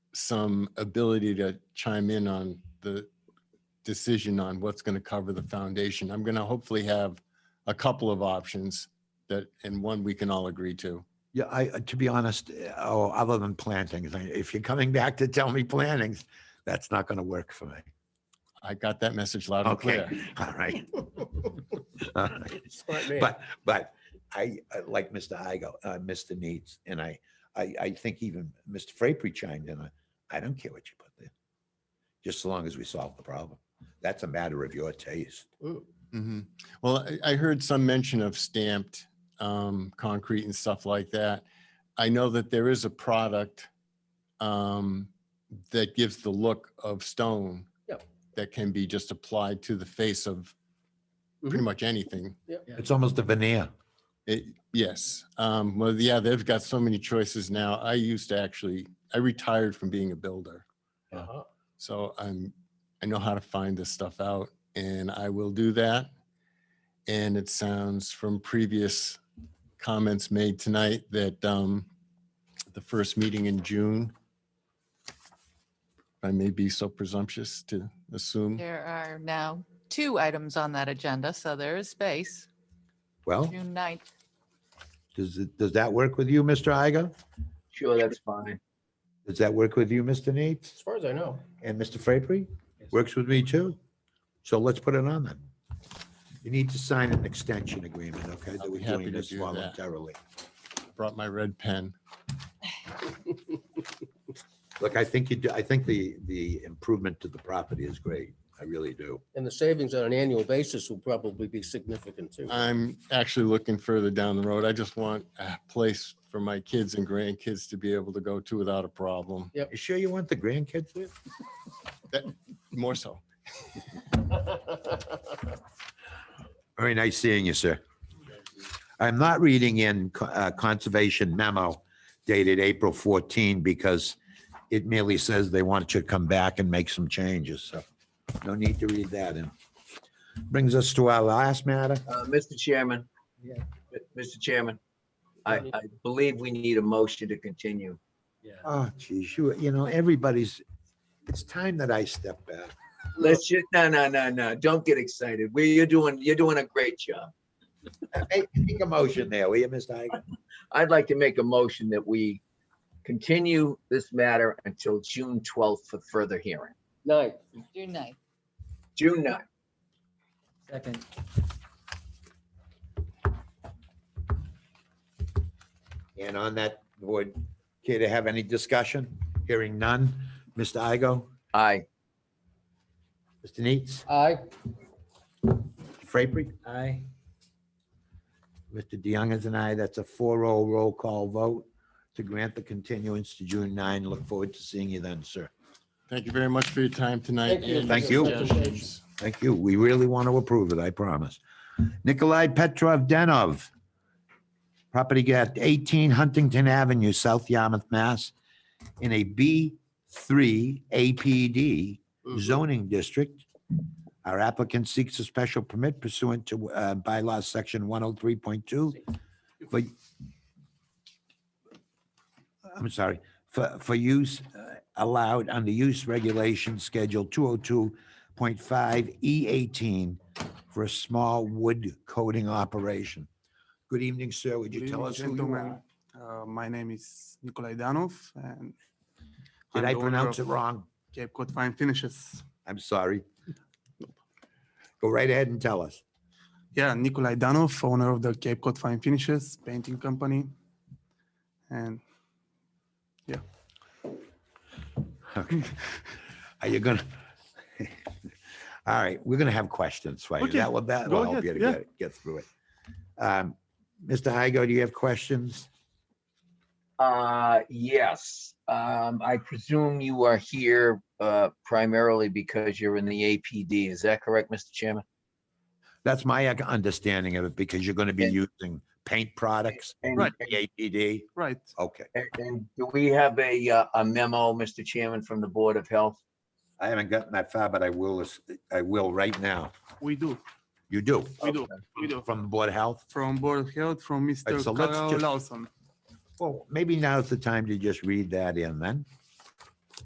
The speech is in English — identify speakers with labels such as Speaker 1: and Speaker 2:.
Speaker 1: some ability to chime in on the decision on what's going to cover the foundation. I'm going to hopefully have a couple of options that, and one we can all agree to.
Speaker 2: Yeah, I, uh, to be honest, uh, oh, other than plantings, I- if you're coming back to tell me plantings, that's not going to work for me.
Speaker 1: I got that message loud and
Speaker 2: Okay,
Speaker 1: clear.
Speaker 2: all right. All right. But, but I, I like Mr. Igo, uh, Mr. Needs, and I, I, I think even Mr. Frapery chimed in, on, I don't care what you put there. Just so long as we solve the problem. That's a matter of your taste.
Speaker 1: Mhm. Well, I, I heard some mention of stamped um, concrete and stuff like that. I know that there is a product um, that gives the look of stone.
Speaker 3: Yep.
Speaker 1: That can be just applied to the face of pretty
Speaker 3: Mhm.
Speaker 1: much anything.
Speaker 2: It's almost a veneer.
Speaker 1: It, yes. Um, well, yeah, they've got so many choices now. I used to actually, I retired from being a builder.
Speaker 3: Uh-huh.
Speaker 1: So I'm, I know how to find this stuff out and I will do that. And it sounds from previous comments made tonight that um, the first meeting in June, I may be so presumptuous to assume.
Speaker 4: There are now two items on that agenda, so there is space.
Speaker 2: Well,
Speaker 4: June 9th.
Speaker 2: does, it- does that work with you, Mr. Igo?
Speaker 3: Sure, that's fine.
Speaker 2: Does that work with you, Mr. Needs?
Speaker 3: As far as I know.
Speaker 2: And Mr. Frapery
Speaker 3: Yes.
Speaker 2: works with me too. So let's put it on then. You need to sign an extension agreement, okay?
Speaker 1: I'll
Speaker 2: That we're
Speaker 1: be happy
Speaker 2: doing
Speaker 1: to
Speaker 2: this
Speaker 1: do that.
Speaker 2: voluntarily.
Speaker 1: Brought my red pen.
Speaker 2: Look, I think you do, I think the, the improvement to the property is great. I really do.
Speaker 3: And the savings on an annual basis will probably be significant too.
Speaker 1: I'm actually looking further down the road. I just want a place for my kids and grandkids to be able to go to without a problem,
Speaker 2: You sure you want the grandkids there?
Speaker 1: more so.
Speaker 2: Very nice seeing you, sir. I'm not reading in co- uh, Conservation memo dated April 14 because it merely says they want you to come back and make some changes, so no need to read that in. Brings us to our last matter.
Speaker 5: Uh, Mr. Chairman.
Speaker 3: Yeah.
Speaker 5: M- Mr. Chairman, I,
Speaker 3: Yeah.
Speaker 5: I believe we need a motion to continue.
Speaker 3: Yeah.
Speaker 2: Oh, geez, you, you know, everybody's, it's time that I step back.
Speaker 5: Let's just, no, no, no, no, don't get excited. We, you're doing, you're doing a great job.
Speaker 2: Make make a motion there, will you, Mr. Igan?
Speaker 5: I'd like to make a motion that we continue this matter until June twelfth for further hearing.
Speaker 3: Night.
Speaker 4: June 9th.
Speaker 5: June ninth.
Speaker 3: Second.
Speaker 2: And on that, would care to have any discussion? Hearing none. Mr. Igo,
Speaker 5: Aye.
Speaker 2: Mr. Neets?
Speaker 3: Aye.
Speaker 2: Frapery? Aye. Mr. DeYoung is an aye. That's a 4-0 roll call vote to grant the continuance to June 9. Look forward to seeing you then, sir.
Speaker 1: Thank you very much for your time tonight.
Speaker 3: Thank you.
Speaker 1: and
Speaker 2: Thank
Speaker 1: your
Speaker 2: you.
Speaker 1: suggestions.
Speaker 2: Thank you. We really want to approve it, I promise. Nikolai Petrov Denov. Property at 18 Huntington Avenue, South Yarmouth, Mass. In a B3 APD zoning district. Our applicant seeks a special permit pursuant to uh, bylaw section 103.2 for I'm sorry, for, for use uh, allowed under use regulation schedule 202.5 E18 E for a small wood coating operation. Good evening, sir. Would you
Speaker 6: Good
Speaker 2: tell
Speaker 6: evening,
Speaker 2: us who you
Speaker 6: gentlemen.
Speaker 2: are?
Speaker 6: Uh, My name is Nikolai Danov and. I'm
Speaker 2: Did I
Speaker 6: the owner
Speaker 2: pronounce it
Speaker 6: of
Speaker 2: wrong?
Speaker 6: Cape Cod Fine Finishes.
Speaker 2: I'm sorry. Go right ahead and tell us.
Speaker 6: Yeah, Nikolai Danov, owner of the Cape Cod Fine Finishes Painting Company. And
Speaker 2: Okay. Are you gonna? All right, we're gonna have questions for you.
Speaker 6: Okay,
Speaker 2: That will, that will
Speaker 6: go
Speaker 2: help
Speaker 6: ahead,
Speaker 2: you to
Speaker 6: yeah.
Speaker 2: get, get through it. Um, Mr. Igo, do you have questions?
Speaker 5: Uh, yes, um, I presume you are here, uh, primarily because you're in the APD. Is that correct, Mr. Chairman?
Speaker 2: That's my ac- understanding of it, because you're gonna be
Speaker 5: And-
Speaker 2: using paint products,
Speaker 5: and-
Speaker 2: right, the APD,
Speaker 6: right,
Speaker 2: okay.
Speaker 5: And- And do we have a, uh, a memo, Mr. Chairman, from the Board of Health?
Speaker 2: I haven't gotten that far, but I will, as- I will right now.
Speaker 6: we do,
Speaker 2: You do,
Speaker 6: we do, we do.
Speaker 2: from the Board of Health?
Speaker 6: From Board of Health, from Mr.
Speaker 2: so let's
Speaker 6: Carl
Speaker 2: just-
Speaker 6: Lawson.
Speaker 2: Well, maybe now's the time to just read that in then.